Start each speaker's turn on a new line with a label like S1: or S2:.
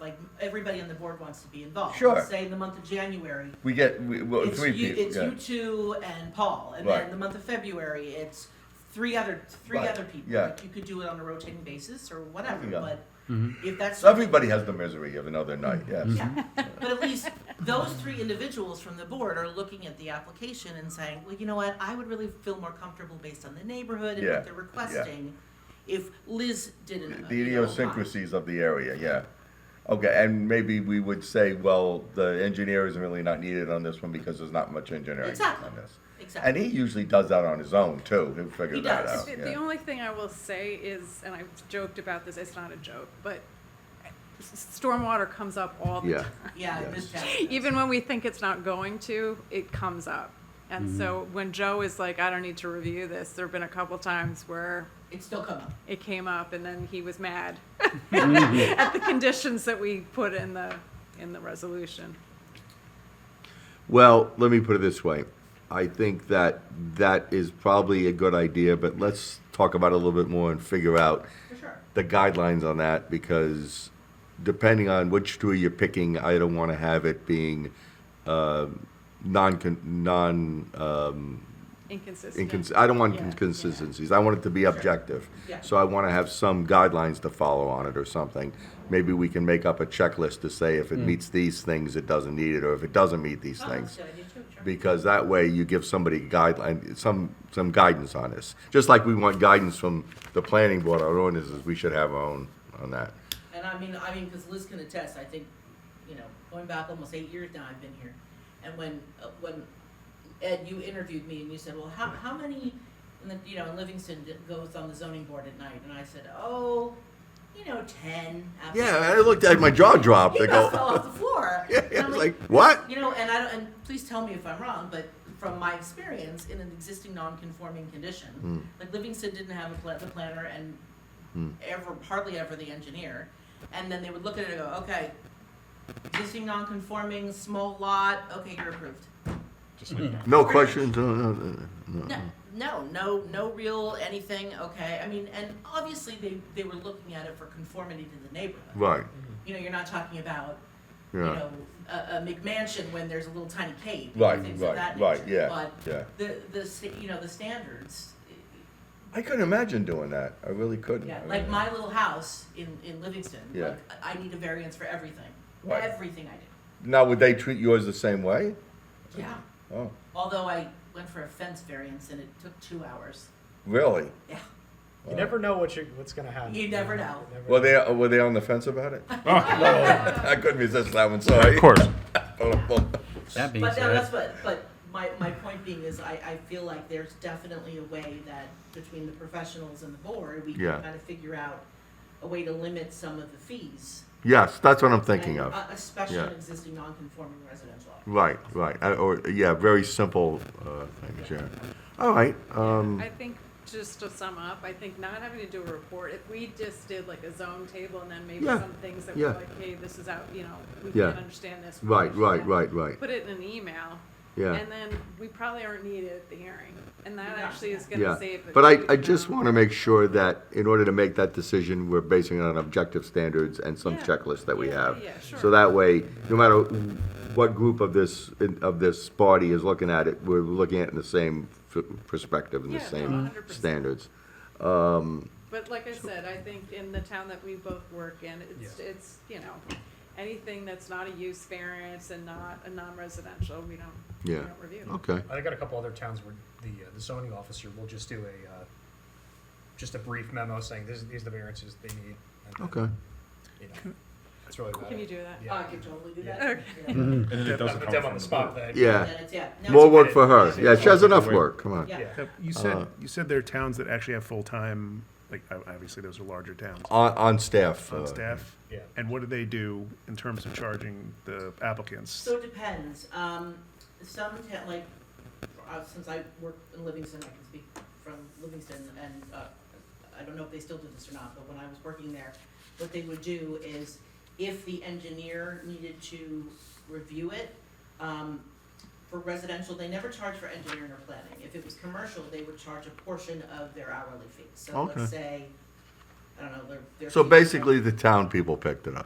S1: like, everybody on the board wants to be involved.
S2: Sure.
S1: Say in the month of January,
S2: We get, we, well,
S1: it's
S2: three
S1: you, it's
S2: people, yeah.
S1: you two and Paul, and
S2: Right.
S1: then the month of February, it's three other, three
S2: Right,
S1: other people.
S2: yeah.
S1: Like, You could do it on a rotating basis or whatever,
S2: Yeah.
S1: but if that's.
S2: So everybody has the misery of another night, yes.
S1: Yeah, but at least those three individuals from the board are looking at the application and saying, well, you know what, I would really feel more comfortable based on the neighborhood and
S2: Yeah,
S1: what
S2: yeah.
S1: they're requesting if Liz didn't. uh,
S2: The
S1: you know, apply."
S2: idiosyncrasies of the area, yeah. Okay, and maybe we would say, well, the engineer is really not needed on this one because there's not much engineering
S1: Exactly.
S2: on this. And
S1: Exactly.
S2: he usually does that on his own too, he'll figure
S1: He
S2: that
S1: does.
S2: out,
S3: The, the
S2: yeah.
S3: only thing I will say is, and I've joked about this, it's not a joke, but s- stormwater comes up all the
S2: Yeah.
S3: time.
S1: Yeah,
S2: Yes.
S1: Ms.
S3: Even when we think it's not going to, it comes up. And
S2: Mm-hmm.
S3: so when Joe is like, I don't need to review this, there have been a couple times where
S1: It still come up.
S3: it came up and then he was mad
S2: Mm-hmm.
S3: at the conditions that we put in the in the resolution.
S4: Well, let me put it this way. I think that that is probably a good idea, but let's talk about it a little bit more and figure out
S1: For sure.
S4: the guidelines on that because depending on which two you're picking, I don't want to have it being um non non um,
S3: Inconsistent.
S4: incons- I don't want
S3: Yeah, yeah.
S4: inconsistencies. I want it to be objective.
S1: Yeah.
S4: So I want to have some guidelines to follow on it or something. Maybe we can make up a checklist to say if it meets these things, it doesn't need it, or if it doesn't meet these
S3: Uh-huh.
S1: Oh,
S4: things
S1: that's a good idea too, sure.
S4: because that way you give somebody guideline, some, some guidance on this. Just like we want guidance from the planning board on ordinances, we should have our own on that.
S1: And I mean, I mean, because Liz can attest. I think, you know, going back almost eight years now, I've been here, and when uh, when Ed, you interviewed me and you said, well, how how many, and then, you know, in Livingston d- goes on the zoning board at night, and I said, oh, you know, ten.
S4: Yeah, I looked at my jaw dropped. I
S1: You about fell
S4: go,
S1: off the floor.
S4: yeah,
S1: And
S4: yeah,
S1: I'm
S4: it's like, what?
S1: you know, and I don't, and please tell me if I'm wrong, but from my experience in an existing non-conforming condition, like Livingston didn't have a pla- the planner and ever, hardly ever the engineer, and then they would look at it and go, okay, existing non-conforming, small lot, okay, you're approved.
S4: No questions, no, no, no,
S1: No,
S4: no.
S1: no, no, no real anything, okay, I mean, and obviously they, they were looking at it for conformity to the neighborhood.
S4: Right,
S1: You know, you're not talking about you
S4: yeah,
S1: know, a, a McMansion when there's a little tiny cave. and
S2: Right,
S1: things of
S2: right,
S1: that
S2: right,
S1: nature.
S2: yeah, yeah.
S1: But the, the, sta- you know, the standards,
S2: I couldn't imagine doing that, I really couldn't.
S1: yeah,
S2: I
S1: like
S2: mean,
S1: my little house in, in Livingston,
S2: Yeah.
S1: like, I I need a variance for everything,
S2: Right.
S1: everything I
S2: Now, would they treat yours the same way?
S1: did. Yeah,
S2: Oh,
S1: although I went for a fence variance and it took two hours.
S2: really?
S1: Yeah,
S5: You never know what you what's gonna happen.
S1: You never know.
S5: never
S2: Were
S4: uh,
S2: they, were they on the fence about it?
S6: Oh,
S2: I couldn't resist that one, sorry.
S6: of course.
S4: Oh,
S6: That being
S1: but no,
S6: said,
S1: that's what, but my, my point being is I, I feel like there's definitely a way that between the professionals and the board, we
S4: Yeah.
S1: can kind of figure out a way to limit some of the fees.
S4: yes, that's what I'm thinking
S1: and,
S4: of.
S1: uh, Especially
S4: Yeah.
S1: an existing non-conforming residential.
S4: Right, right, I- or, yeah, very simple, uh, things, yeah. All right, um,
S3: I think, just to sum up, I think not having to do a report, if we just did like a zone table and then maybe
S4: Yeah,
S3: some things that were
S4: yeah.
S3: like, hey, this is out, you know, we
S4: Yeah.
S3: can't understand this. we
S4: right,
S3: understand
S4: right,
S3: that.
S4: right, right,
S3: Put it in an email.
S4: yeah.
S3: And then we probably aren't needed at the hearing. And that
S1: Yeah.
S3: actually is
S4: Yeah,
S3: gonna save. it,
S4: but
S3: you
S4: I, I just
S3: know.
S4: want to make sure that in order to make that decision, we're basing it on objective standards and some
S3: Yeah.
S4: checklist that we
S3: Yeah,
S4: have.
S3: yeah, sure.
S4: So that way, no matter what group of this, of this body is looking at it, we're looking at it in the same f- perspective and the
S3: Yeah, no,
S4: same
S3: 100%.
S4: standards.
S3: But like I said, I think in the town that we both work in, it's, it's, you know, anything that's not a use variance and not a non-residential, we don't, we
S4: Yeah.
S3: don't review.
S4: Okay,
S5: I got a couple other towns where the uh, the zoning officer will just do a uh, just a brief memo saying this, these are the variances they need. and then,
S4: okay.
S5: You know, that's really about
S3: Can you
S5: it.
S3: do that?
S5: Yeah.
S1: Oh, I could totally do
S5: Yeah.
S1: that. Yeah.
S6: and then it
S5: Put them
S6: doesn't come
S5: on
S6: from
S5: the
S6: the
S5: spot.
S6: board.
S5: then-
S4: Yeah,
S1: Then it's- yeah, no,
S4: more
S1: it's-
S4: work for her. Yeah, she has enough
S6: Wait.
S4: work, come on.
S1: Yeah.
S5: Yeah.
S6: You said,
S4: Uh,
S6: you said there are towns that actually have full-time, like, ob- obviously those are larger towns,
S4: On, on staff. uh,
S6: on staff.
S5: Yeah.
S6: And what do they do in terms of charging the applicants?
S1: So it depends. Um, some ta- like, uh, since I work in Livingston, I can speak from Livingston, and uh, I don't know if they still do this or not, but when I was working there, what they would do is if the engineer needed to review it, um, for residential, they never charge for engineering or planning. If it was commercial, they would charge a portion of their hourly fee. So
S4: Okay.
S1: let's say, I don't know, their, their.
S4: So
S1: fee was-
S4: basically, the town people picked it up.